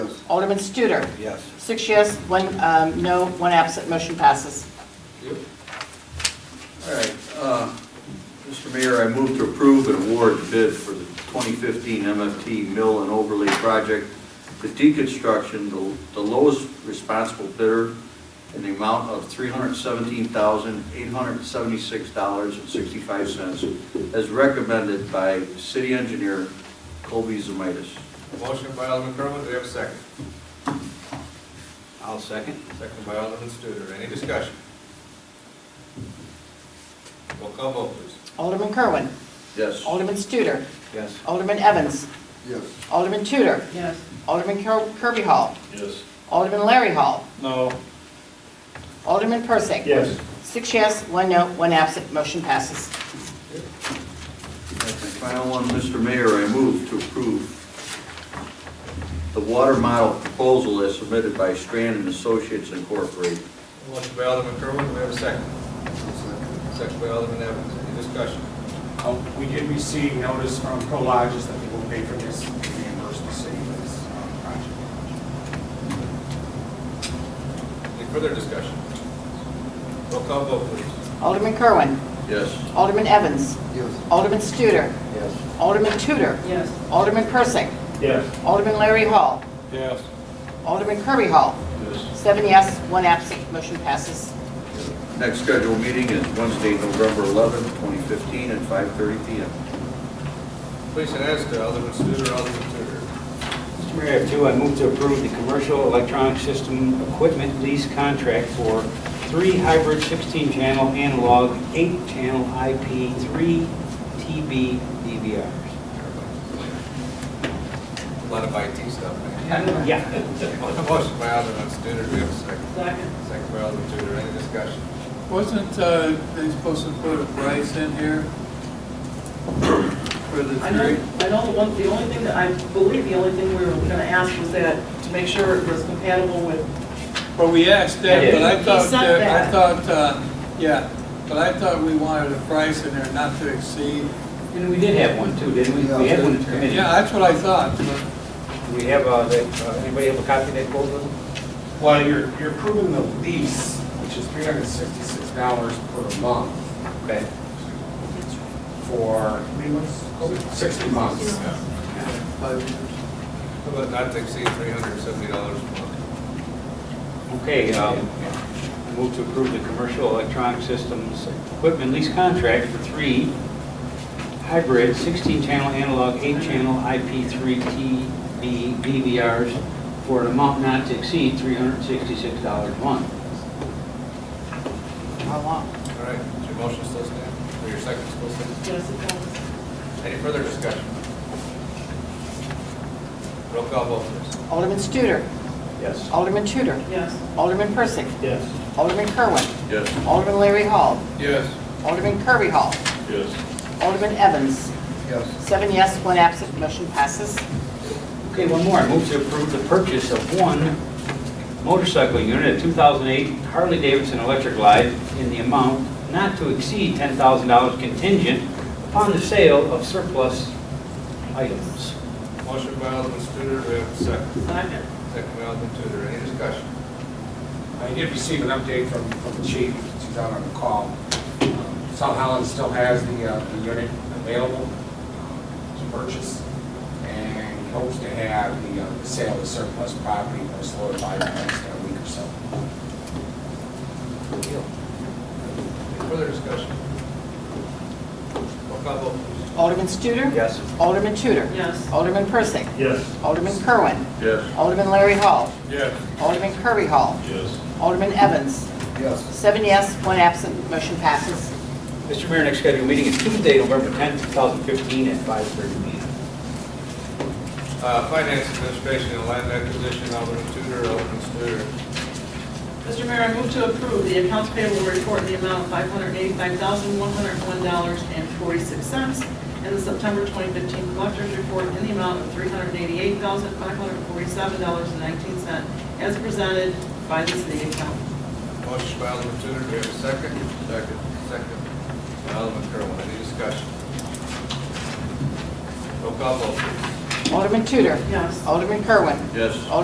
approve. Alderman Studer. Yes. Six yes, one um, no, one absent, motion passes. All right, uh, Mr. Mayor, I move to approve and award the bid for the 2015 MFT Mill and Overlay Project to deconstruction, the- the lowest responsible bidder in the amount of $317,876.65 as recommended by city engineer Colby Zomitis. Motion by Alderman Kerwin, do we have a second? I'll second. Second by Alderman Studer, any discussion? Roll call vote, please. Alderman Kerwin. Yes. Alderman Studer. Yes. Alderman Evans. yes. Alderman Tudor. yes, Alderman Ker- Kirby Hall. Yes. Alderman Larry Hall. No. Alderman Persick. Yes. Six yes, one no, one absent, motion passes. My final one, Mr. Mayor, I move to approve the water model proposal as submitted by Strand and Associates Incorporated. Motion by Alderman Kerwin, do we have a second? Second by Alderman Evans, any discussion? Uh, We did receive notice from Prologis that they will pay for this reimbursement city for this uh, project. Any further discussion? Roll call vote, please. Alderman Kerwin. Yes. Alderman Evans. Yes. Alderman Studer. Yes. Alderman Tudor. yes. Alderman Persick. Yes. Alderman Larry Hall. Yes. Alderman Kirby Hall. Yes. Seven yes, one absent, motion passes. Next scheduled meeting is Wednesday, November 11th, 2015, at 5:30 PM. Please, and ask to Alderman Studer, Alderman Studer. Mr. Mayor, I have two. I move to approve the commercial electronic system equipment lease contract for three hybrid 16-channel analog, eight-channel IP, three TB DVRs. A lot of IT stuff, man. Yeah. Motion by Alderman Studer, do we have a second? Second, Second by Alderman Studer, any discussion? Wasn't uh, they supposed to put a price in here for the I three? know, I know the one, the only thing that, I believe the only thing we were gonna ask was that, to make sure it was compatible with, Well, we asked Yeah, that, yeah. but I He thought, said that- I that. thought, uh, yeah, but I thought we wanted a price in there not to exceed. And we did have one too, didn't we? We had one in the committee. Yeah, that's what I thought. Do we have, uh, that, uh, anybody have a copy of that quote? with them? Well, you're, you're approving the lease, which is three hundred and sixty-six dollars per month Okay. for sixty months. How about not to exceed three hundred and seventy dollars a month? Okay, um, I move to approve the commercial electronic systems equipment lease contract for three hybrid 16-channel analog, 8-channel IP3 TV DVRs for an amount not to exceed $366 a month. How long? All right, is your motion still stand, or your second still stand? yes, it does. Any further discussion? Roll call vote, please. Alderman Studer. Yes. Alderman Tudor. yes. Alderman Persick. Yes. Alderman Kerwin. Yes. Alderman Larry Hall. Yes. Alderman Kirby Hall. Yes. Alderman Evans. Yes. Seven yes, one absent, motion passes. Okay, one more. I move to approve the purchase of one motorcycle unit, a 2008 Harley-Davidson Electric Glide, in the amount not to exceed $10,000 contingent upon the sale of surplus items. Motion by Alderman Studer, do we have a second? Second, Second by Alderman Tudor, any discussion? I did receive an update from, from the chief, she's out on the call. Um, South Holland still has the, uh, the unit available um, to purchase and hopes to have the, uh, the sale of surplus property most solidified in the next uh, week or so. Any further discussion? Roll call vote, please. Alderman Studer. Yes. Alderman Tudor. yes, Alderman Persick. Yes. Alderman Kerwin. Yes. Alderman Larry Hall. Yes. Alderman Kirby Hall. Yes. Alderman Evans. Yes. Seven yes, one absent, motion passes. Mr. Mayor, next scheduled meeting is Tuesday, November 10th, 2015, at 5:30 p.m. Uh, Finance Administration and Land Acquisition, Alderman Tudor, Alderman Studer. Mr. Mayor, I move to approve the accounts payable report in the amount of five hundred eighty-five thousand, one hundred one dollars and forty-six cents, and the September twenty fifteen collector's report in the amount of three hundred eighty-eight thousand, five hundred forty-seven dollars and nineteen cent, as presented by the city accountant. Motion by Alderman Tudor, do we have a second? Second. Second by Alderman Kerwin, any discussion? Roll call vote, please. Alderman Tudor. Yes. Alderman Kerwin. Yes.